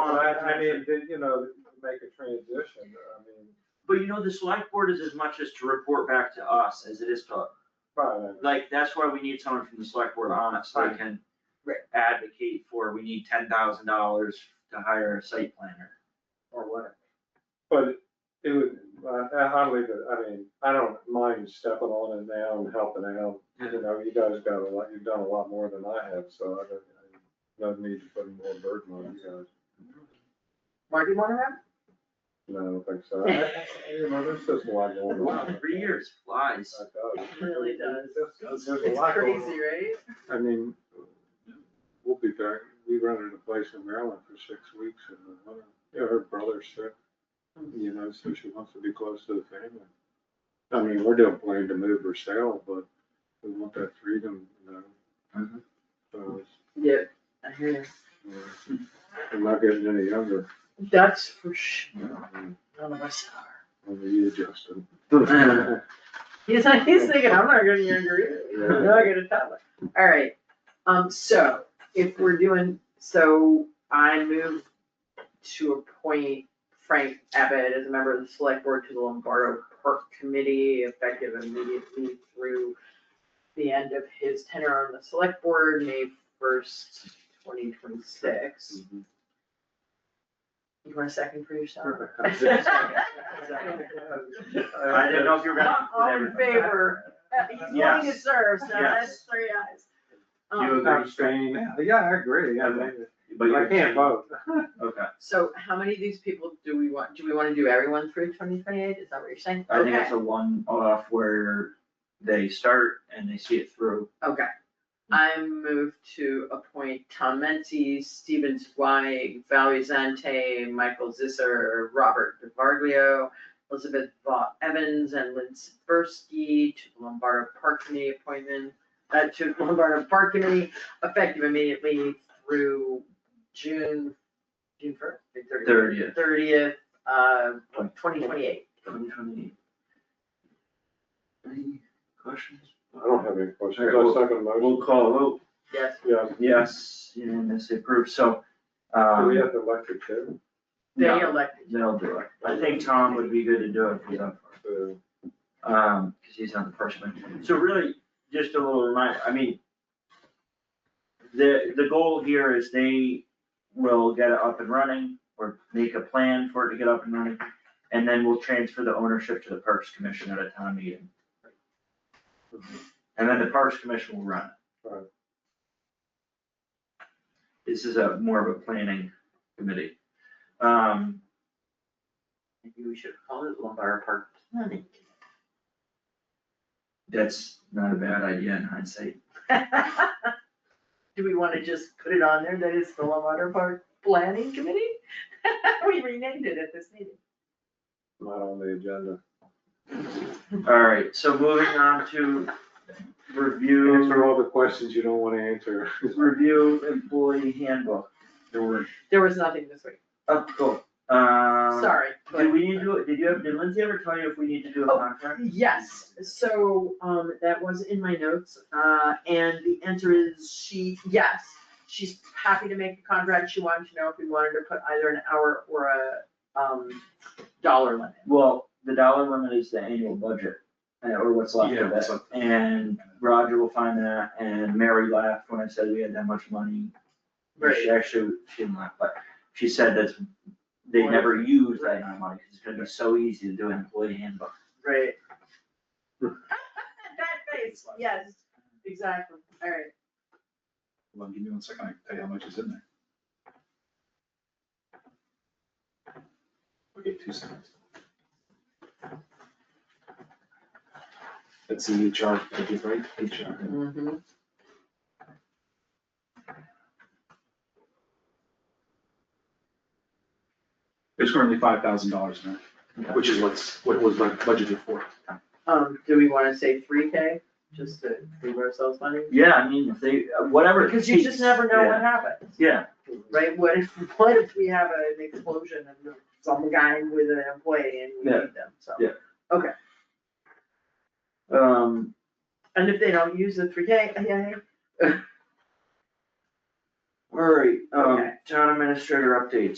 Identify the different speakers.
Speaker 1: I mean, did- you know, to make a transition, I mean,
Speaker 2: But you know, the select board is as much as to report back to us as it is to,
Speaker 1: fine,
Speaker 2: like, that's why we need someone from the select board on it, so they can
Speaker 3: Right.
Speaker 2: advocate for, we need ten thousand dollars to hire a site planner.
Speaker 3: or what?
Speaker 1: but it would, I, I leave it, I mean, I don't mind stepping on it now and helping out. You know, you guys got a lot, you've done a lot more than I have, so I don't, I don't need to put more burden on you guys.
Speaker 3: Marty want to have?
Speaker 1: No, I don't think so. I- I- You know, there's just a lot going
Speaker 2: Wow,
Speaker 1: on.
Speaker 2: three years flies.
Speaker 1: I thought-
Speaker 3: Really does.
Speaker 1: There's there's a lot going on.
Speaker 3: right?
Speaker 1: I mean, we'll be back, we rented a place in Maryland for six weeks and, uh, yeah, her brother's sick. You know, so she wants to be close to the family. I mean, we're doing plan to move or sell, but we want that freedom, you know? Mm-hmm.
Speaker 2: Mhm.
Speaker 1: So, it's,
Speaker 3: Yeah, I hear you.
Speaker 1: you know, I'm not getting any younger,
Speaker 3: That's for sure.
Speaker 1: you know, I mean,
Speaker 3: None of us are.
Speaker 1: only you, Justin.
Speaker 2: Yeah.
Speaker 3: He's like, he's thinking, I'm not getting younger either, I'm not gonna tell him. Alright, um, so if we're doing, so I move to appoint Frank Abbott as a member of the select board to the Lombardo Park Committee effective immediately through the end of his tenure on the select board, May first, twenty twenty-six. You want a second for yourself?
Speaker 2: I didn't know if you were gonna.
Speaker 3: All in favor? Uh, He's willing to
Speaker 2: Yes.
Speaker 3: serve, so that's
Speaker 2: Yes.
Speaker 3: three ayes.
Speaker 2: You
Speaker 3: Um,
Speaker 2: agree?
Speaker 1: yeah, I agree, I mean,
Speaker 2: But you
Speaker 1: I can't vote.
Speaker 2: Okay,
Speaker 3: so how many of these people do we want, do we wanna do everyone through twenty twenty-eight, is that what you're saying?
Speaker 2: I think it's a one off where they start and they see it through.
Speaker 3: Okay, Okay. I move to appoint Tom Mency, Steven Zweig, Valerie Zante, Michael Zisser, Robert DiVarglio, Elizabeth Vaught Evans, and Lynn Siversky to the Lombardo Park Committee appointment, uh, to the Lombardo Park Committee, effective immediately through June, June first, thirtieth?
Speaker 2: Thirtieth.
Speaker 3: Thirtieth, uh, twenty twenty-eight.
Speaker 2: Any questions?
Speaker 1: I don't have any questions,
Speaker 2: All right,
Speaker 1: I
Speaker 2: well-
Speaker 1: second the motion,
Speaker 2: We'll call a vote.
Speaker 3: Yes,
Speaker 1: yeah,
Speaker 2: Yes, unanimously approved, so,
Speaker 1: do
Speaker 2: um,
Speaker 1: we have to electric too?
Speaker 3: they
Speaker 2: no,
Speaker 3: elected.
Speaker 2: they'll do it. I think Tom would be good to do it if he's on,
Speaker 1: Uh,
Speaker 2: um, cause he's on the first one. So really, just a little reminder, I mean, the, the goal here is they will get it up and running, or make a plan for it to get up and running, and then we'll transfer the ownership to the Parks Commission at a town meeting. And then the Parks Commission will run it.
Speaker 1: Right.
Speaker 2: This is a more of a planning committee. Um,
Speaker 3: Maybe we should call it Lombardo Park Planning.
Speaker 2: that's not a bad idea in hindsight.
Speaker 3: Do we wanna just put it on there that it's the Lombardo Park Planning Committee? We renamed it at this meeting.
Speaker 1: Not on the agenda.
Speaker 2: Alright, so moving on to
Speaker 1: Answer
Speaker 2: review,
Speaker 1: all the questions you don't wanna answer.
Speaker 2: review employee handbook. There were.
Speaker 3: There was nothing this week,
Speaker 2: Oh, cool. Um,
Speaker 3: sorry,
Speaker 2: Did
Speaker 3: but,
Speaker 2: we need to, did you have, did Lindsay ever tell you if we need to do a
Speaker 3: Oh.
Speaker 2: contract?
Speaker 3: yes, so, um, that was in my notes, uh, and the answer is she, yes. She's happy to make a contract, she wanted to know if we wanted to put either an hour or a, um, dollar limit.
Speaker 2: Well, the dollar limit is the annual budget, uh, or what's left
Speaker 1: Yeah,
Speaker 2: of
Speaker 1: what's
Speaker 2: it, and Roger will find that, and Mary laughed when I said we had that much money. She actually, she didn't laugh, but she said that's, they
Speaker 3: Right.
Speaker 2: never use that amount of money, 'cause it's gonna be so easy to do an employee handbook.
Speaker 3: Right. That face, yes, exactly, alright.
Speaker 4: Hold on, give me one second, I can tell you how much is in there. Okay, two seconds. That's the HR, pages, right? HR.
Speaker 2: Mm-hmm.
Speaker 4: There's currently five thousand dollars in there, which is what's, what was my budgeted for.
Speaker 3: Um, do we wanna say three K, just to leave ourselves money?
Speaker 2: Yeah, I mean, if they, uh, whatever. it
Speaker 3: Because you just
Speaker 2: takes.
Speaker 3: never know
Speaker 2: Yeah.
Speaker 3: what happens,
Speaker 2: Yeah,
Speaker 3: right, what if, what if we have an explosion and some guy with an employee and we
Speaker 2: Yeah.
Speaker 3: need them, so.
Speaker 2: Yeah. um,
Speaker 3: And if they don't use the three K, yeah,
Speaker 2: all right, um,
Speaker 3: Okay.
Speaker 2: town um, administrator updates.